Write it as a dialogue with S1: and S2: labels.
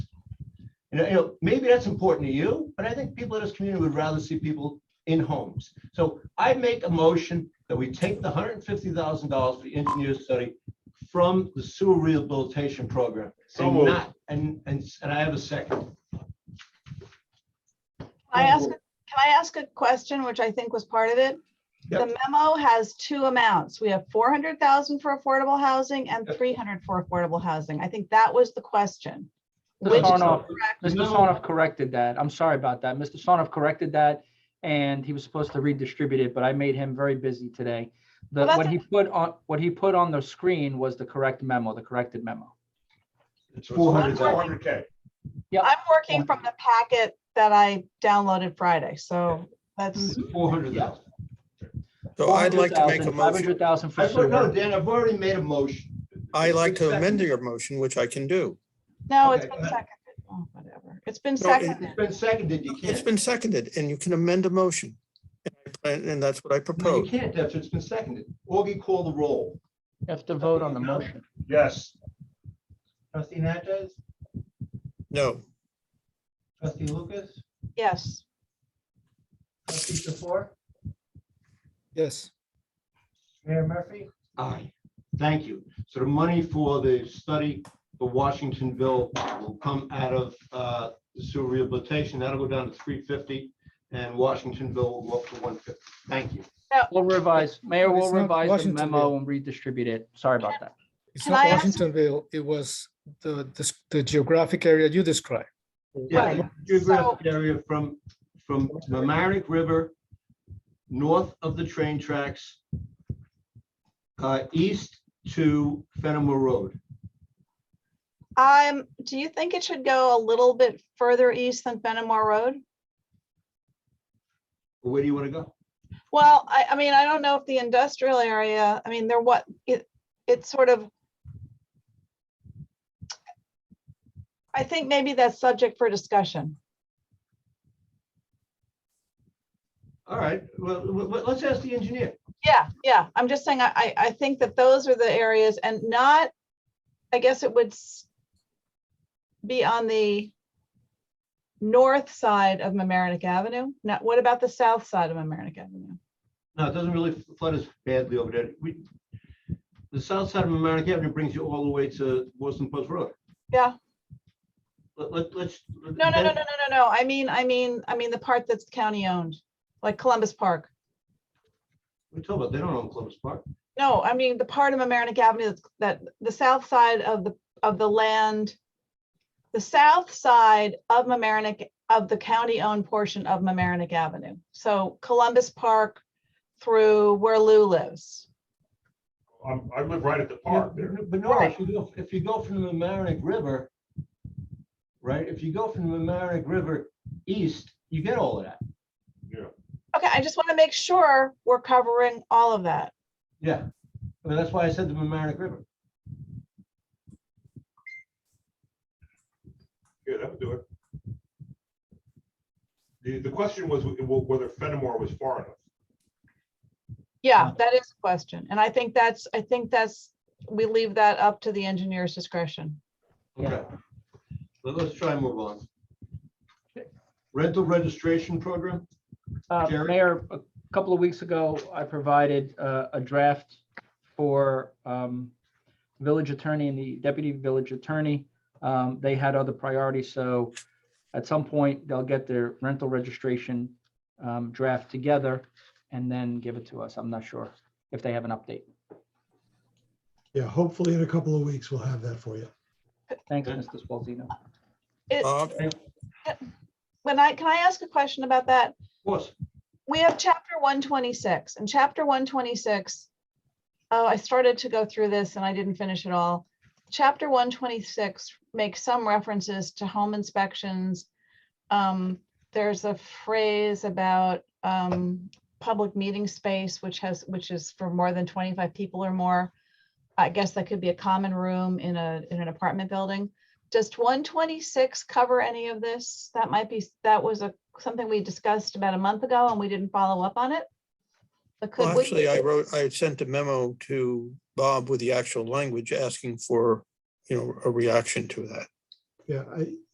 S1: And, you know, maybe that's important to you, but I think people in this community would rather see people in homes. So I make a motion that we take the hundred and fifty thousand dollars for the engineer study from the sewer rehabilitation program.
S2: So
S1: And
S2: moved.
S1: not, and, and, and I have a second.
S3: I ask, can I ask a question, which I think was part of it? The memo has two amounts. We have four hundred thousand for affordable housing and
S1: Yep.
S3: three hundred for affordable housing. I think that was the question. Which
S4: Mr.
S3: is
S4: Sarnoff,
S3: correct?
S4: Mr.
S1: No.
S4: Sarnoff corrected that. I'm sorry about that. Mr. Sarnoff corrected that and he was supposed to redistribute it, but I made him very busy today. The,
S3: Well, that's
S4: what he put on, what he put on the screen was the correct memo, the corrected memo.
S1: It's
S2: Four
S1: four hundred thousand.
S2: hundred K.
S3: I'm working from the packet that I downloaded Friday, so that's,
S1: Four hundred thousand.
S5: So I'd like to make a motion.
S4: 500,000 for
S1: I thought, no,
S4: sewer.
S1: Dan, I've already made a motion.
S5: I like to
S1: Second.
S5: amend your motion, which I can do.
S3: no, it's
S1: Okay.
S3: been seconded. Oh, whatever. It's been
S5: No, it-
S3: seconded.
S1: It's been seconded, you
S5: It's
S1: can't.
S5: been seconded and you can amend a motion. And I plan- And that's what I
S1: No, you
S5: propose.
S1: can't, Deb, it's been seconded. Augie, call the roll.
S4: You have to vote on the motion.
S2: Yes,
S1: Trustee Natchez?
S5: No,
S1: Trustee Lucas?
S3: Yes,
S1: Trustee Tefor?
S6: Yes,
S1: Mayor Murphy? Aye. Thank you. So the money for the study for Washingtonville will come out of uh, the sewer rehabilitation. That'll go down to three fifty and Washingtonville will go up to one fifty. Thank you.
S4: We'll revise, Mayor will
S6: It's not
S4: revise the
S6: Washington,
S4: memo and redistribute it. Sorry about that.
S6: it's
S3: Can
S6: not
S3: I ask-
S6: Washingtonville, it was the, the- the geographic area you described.
S1: Yeah,
S3: Right.
S1: the geographic area from, from the Mamaroneck River, north of the train tracks, uh, east to Fenimore Road.
S3: um, do you think it should go a little bit further east than Benamar Road?
S1: Where do you want to go?
S3: Well, I, I mean, I don't know if the industrial area, I mean, they're what, it, it's sort of. I think maybe that's subject for discussion.
S1: All right, well, w- w- let's ask the engineer.
S3: Yeah, yeah, I'm just saying, I, I, I think that those are the areas and not, I guess it would. s- Be on the. North side of Mamaroneck Avenue, not, what about the south side of Mamaroneck Avenue?
S1: No, it doesn't really flood as badly over there. We, the south side of Mamaroneck Avenue brings you all the way to Boston Post Road.
S3: Yeah.
S1: Let, let, let's.
S3: No, no, no, no, no, no, no, I mean, I mean, I mean, the part that's county owned, like Columbus Park.
S1: We're talking about, they don't own Columbus Park.
S3: No, I mean, the part of Amerenik Avenue that's- that, the south side of the, of the land, the south side of Amerenik, of the county-owned portion of Amerenik Avenue. So Columbus Park through where Lou lives.
S2: I'm, Um, I live right at the park there.
S1: But no, if you go, if you go from the Mamaroneck River, right, if you go from the Mamaroneck River east, you get all of that.
S2: Yeah.
S3: Okay, I just want to make sure we're covering all of that.
S1: Yeah. I mean, that's why I said the Mamaroneck River.
S2: Yeah, that would do it. The, the question was wh- wh- whether Fenimore was far enough.
S3: Yeah, that is a question. And I think that's, I think that's, we leave that up to the engineer's discretion.
S4: Yeah.
S1: Okay. Let- Let's try and move on. Rental registration program?
S4: Uh,
S1: Jerry?
S4: Mayor, a couple of weeks ago, I provided uh, a draft for um, village attorney and the deputy village attorney. Um, They had other priorities, so at some point, they'll get their rental registration um, draft together and then give it to us. I'm not sure if they have an update.
S7: Yeah, hopefully in a couple of weeks, we'll have that for you.
S4: Thanks,
S1: Okay.
S4: Mr. Spalzino.
S3: It-
S5: Bob,
S3: When I, can I ask a question about that?
S1: Of course.
S3: we have chapter one twenty-six and chapter one twenty-six. Oh, I started to go through this and I didn't finish it all. Chapter one twenty-six makes some references to home inspections. Um, there's a phrase about, um, public meeting space, which has, which is for more than twenty-five people or more. I guess that could be a common room in a, in an apartment building. Does one twenty-six cover any of this? That might be, that was a, something we discussed about a month ago and we didn't follow up on it. But could
S5: well,
S3: we?
S5: actually, I wrote, I sent a memo to Bob with the actual language asking for, you know, a reaction to that.
S7: Yeah, I,